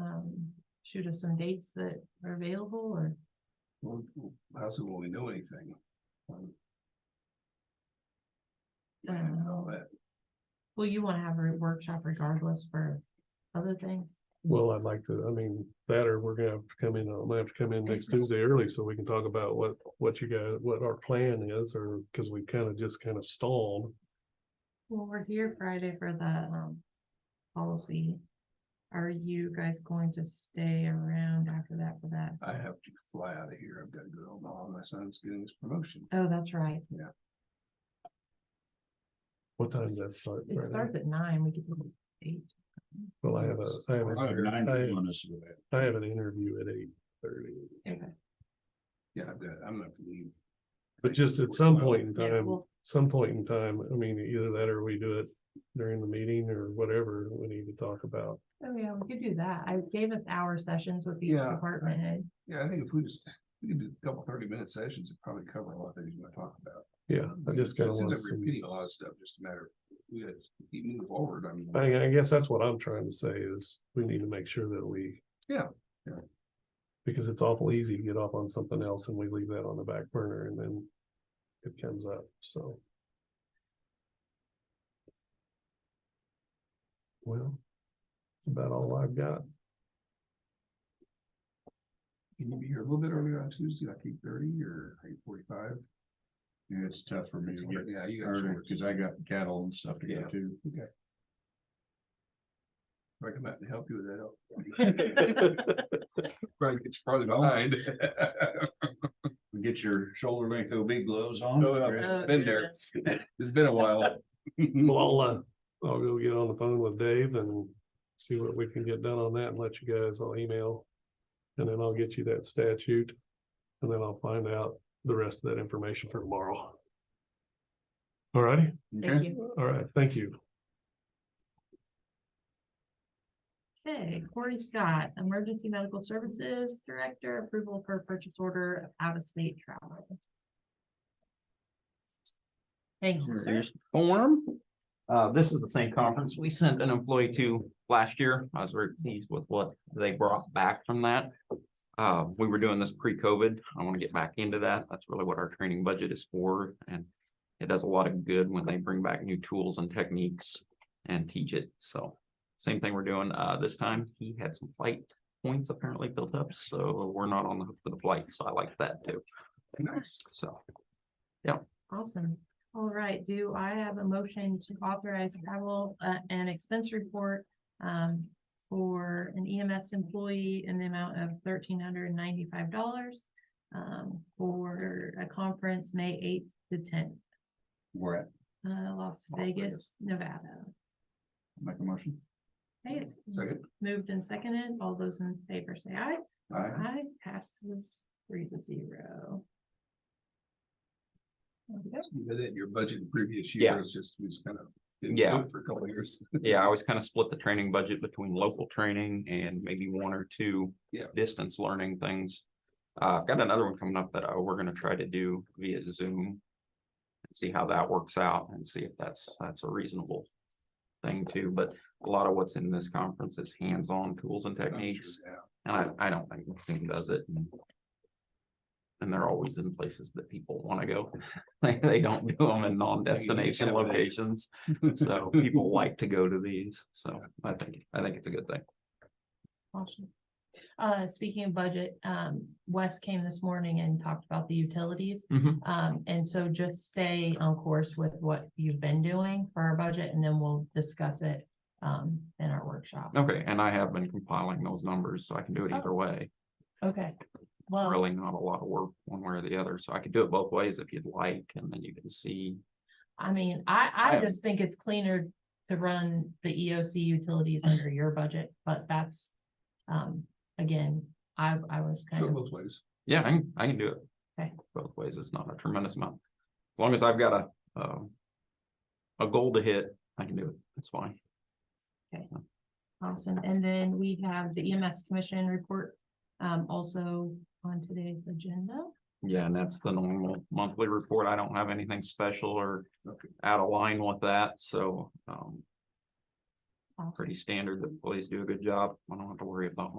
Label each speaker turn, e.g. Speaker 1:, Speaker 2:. Speaker 1: um, shoot us some dates that are available or?
Speaker 2: Well, how soon will we know anything? Um, yeah, I don't know that.
Speaker 1: Well, you wanna have a workshop regardless for other things.
Speaker 3: Well, I'd like to, I mean, that or we're gonna have to come in, I'm gonna have to come in next Tuesday early so we can talk about what, what you got, what our plan is, or, cause we kind of just kind of stalled.
Speaker 1: Well, we're here Friday for the, um, policy. Are you guys going to stay around after that for that?
Speaker 2: I have to fly out of here. I've got to go to Omaha. My son's getting his promotion.
Speaker 1: Oh, that's right.
Speaker 3: What time does that start?
Speaker 1: It
Speaker 3: Friday?
Speaker 1: starts at nine. We could do eight.
Speaker 3: Well, I have a, I have,
Speaker 2: I have nine
Speaker 3: a-
Speaker 2: on this.
Speaker 3: I, I have an interview at eight thirty.
Speaker 1: Okay.
Speaker 2: Yeah, I've got, I'm gonna have to leave.
Speaker 3: But just at some point in
Speaker 1: Yeah,
Speaker 3: time,
Speaker 1: well,
Speaker 3: some point in time, I mean, either that or we do it during the meeting or whatever we need to talk about.
Speaker 1: oh yeah, we could do that. I gave us hour sessions with each
Speaker 2: Yeah.
Speaker 1: department head.
Speaker 2: Yeah, I think if we just, we could do a couple thirty minute sessions, it'd probably cover a lot of things we're gonna talk about.
Speaker 3: Yeah, I just kind
Speaker 2: It
Speaker 3: of
Speaker 2: seems
Speaker 3: want
Speaker 2: like
Speaker 3: some.
Speaker 2: we're Repeating a lot of stuff, just a matter of, we gotta keep moving forward. I mean.
Speaker 3: I, I guess that's what I'm trying to say is we need to make sure that we.
Speaker 2: Yeah, yeah.
Speaker 3: Because it's awful easy to get off on something else and we leave that on the back burner and then it comes up, so. Well, that's about all I've got.
Speaker 2: Can you be here a little bit earlier on Tuesday, like eight thirty or eight forty-five? Yeah, it's tough for me
Speaker 4: to get
Speaker 2: Yeah, you
Speaker 4: early,
Speaker 2: got.
Speaker 4: cause I got cattle and stuff to go
Speaker 2: Yeah.
Speaker 4: to.
Speaker 2: I come out and help you with that. Right, it's probably behind.
Speaker 4: Get your shoulder length OB gloves on.
Speaker 2: No, no,
Speaker 1: Oh,
Speaker 2: Been there,
Speaker 1: goodness.
Speaker 2: it's been a while.
Speaker 3: Well, I'll, uh, I'll go get on the phone with Dave and see what we can get done on that and let you guys, I'll email. And then I'll get you that statute. And then I'll find out the rest of that information for tomorrow. All righty,
Speaker 1: Thank you.
Speaker 3: all right, thank you.
Speaker 1: Okay, Corey Scott, Emergency Medical Services Director, approval for purchase order of out-of-state travel. Thank you, sir.
Speaker 5: Here's the form. Uh, this is the same conference we sent an employee to last year. I was very pleased with what they brought back from that. Uh, we were doing this pre-COVID. I want to get back into that. That's really what our training budget is for and it does a lot of good when they bring back new tools and techniques and teach it. So same thing we're doing. Uh, this time he had some flight points apparently built up, so we're not on the hook for the flight. So I like that too.
Speaker 2: Nice.
Speaker 5: So
Speaker 1: Awesome. All right, do I have a motion to authorize travel uh, and expense report um, for an EMS employee in the amount of thirteen hundred and ninety-five dollars um, for a conference, May eighth to tenth,
Speaker 4: We're at,
Speaker 1: uh,
Speaker 4: Las
Speaker 1: Las Vegas,
Speaker 4: Vegas.
Speaker 1: Nevada.
Speaker 4: make a motion.
Speaker 1: Hey, it's
Speaker 2: Second,
Speaker 1: Moved and seconded. All those in favor say aye.
Speaker 4: Aye.
Speaker 1: Aye passes three to zero. There we go.
Speaker 2: you did it in your budget in previous
Speaker 5: Yeah.
Speaker 2: years, just, we just kind of. didn't do
Speaker 5: Yeah.
Speaker 2: it For a couple of years.
Speaker 5: Yeah, I always kind of split the training budget between local training and maybe one or two.
Speaker 2: Yeah.
Speaker 5: Distance learning things. Uh, I've got another one coming up that uh, we're gonna try to do via Zoom. and See how that works out and see if that's, that's a reasonable thing too, but a lot of what's in this conference is hands-on tools and
Speaker 2: I'm Oh, sure,
Speaker 5: techniques,
Speaker 2: yeah.
Speaker 5: and I, I don't think the team does it. and- And they're always in places that people wanna go, they, they don't do them in non-destination
Speaker 2: have it.
Speaker 5: locations. So people like to go to these, so I think, I think it's a good thing.
Speaker 1: Awesome. Uh, speaking of budget, um, Wes came this morning and talked about the utilities.
Speaker 5: Mhm.
Speaker 1: Um, and so just stay on course with what you've been doing for our budget and then we'll discuss it um, in our workshop.
Speaker 5: Okay, and I have been compiling those numbers, so I can do it either way.
Speaker 1: Okay. Well,
Speaker 5: Really not a lot of work one way or the other, so I could do it both ways if you'd like, and then you can see.
Speaker 1: I mean, I, I
Speaker 5: I-
Speaker 1: just think it's cleaner to run the EOC utilities under your budget, but that's, um, again, I, I was kind
Speaker 2: So
Speaker 1: of,
Speaker 2: both ways.
Speaker 5: Yeah, I can, I can do it.
Speaker 1: Okay.
Speaker 5: Both ways, it's not a tremendous amount. As long as I've got a, um. A goal to hit, I can do it, that's fine.
Speaker 1: awesome. And then we have the EMS commission report, um, also on today's agenda.
Speaker 5: Yeah, and that's the normal monthly report. I don't have anything special or
Speaker 2: Okay.
Speaker 5: out of line with that, so, um.
Speaker 1: Awesome.
Speaker 5: pretty standard. The employees do a good job. I don't have to worry about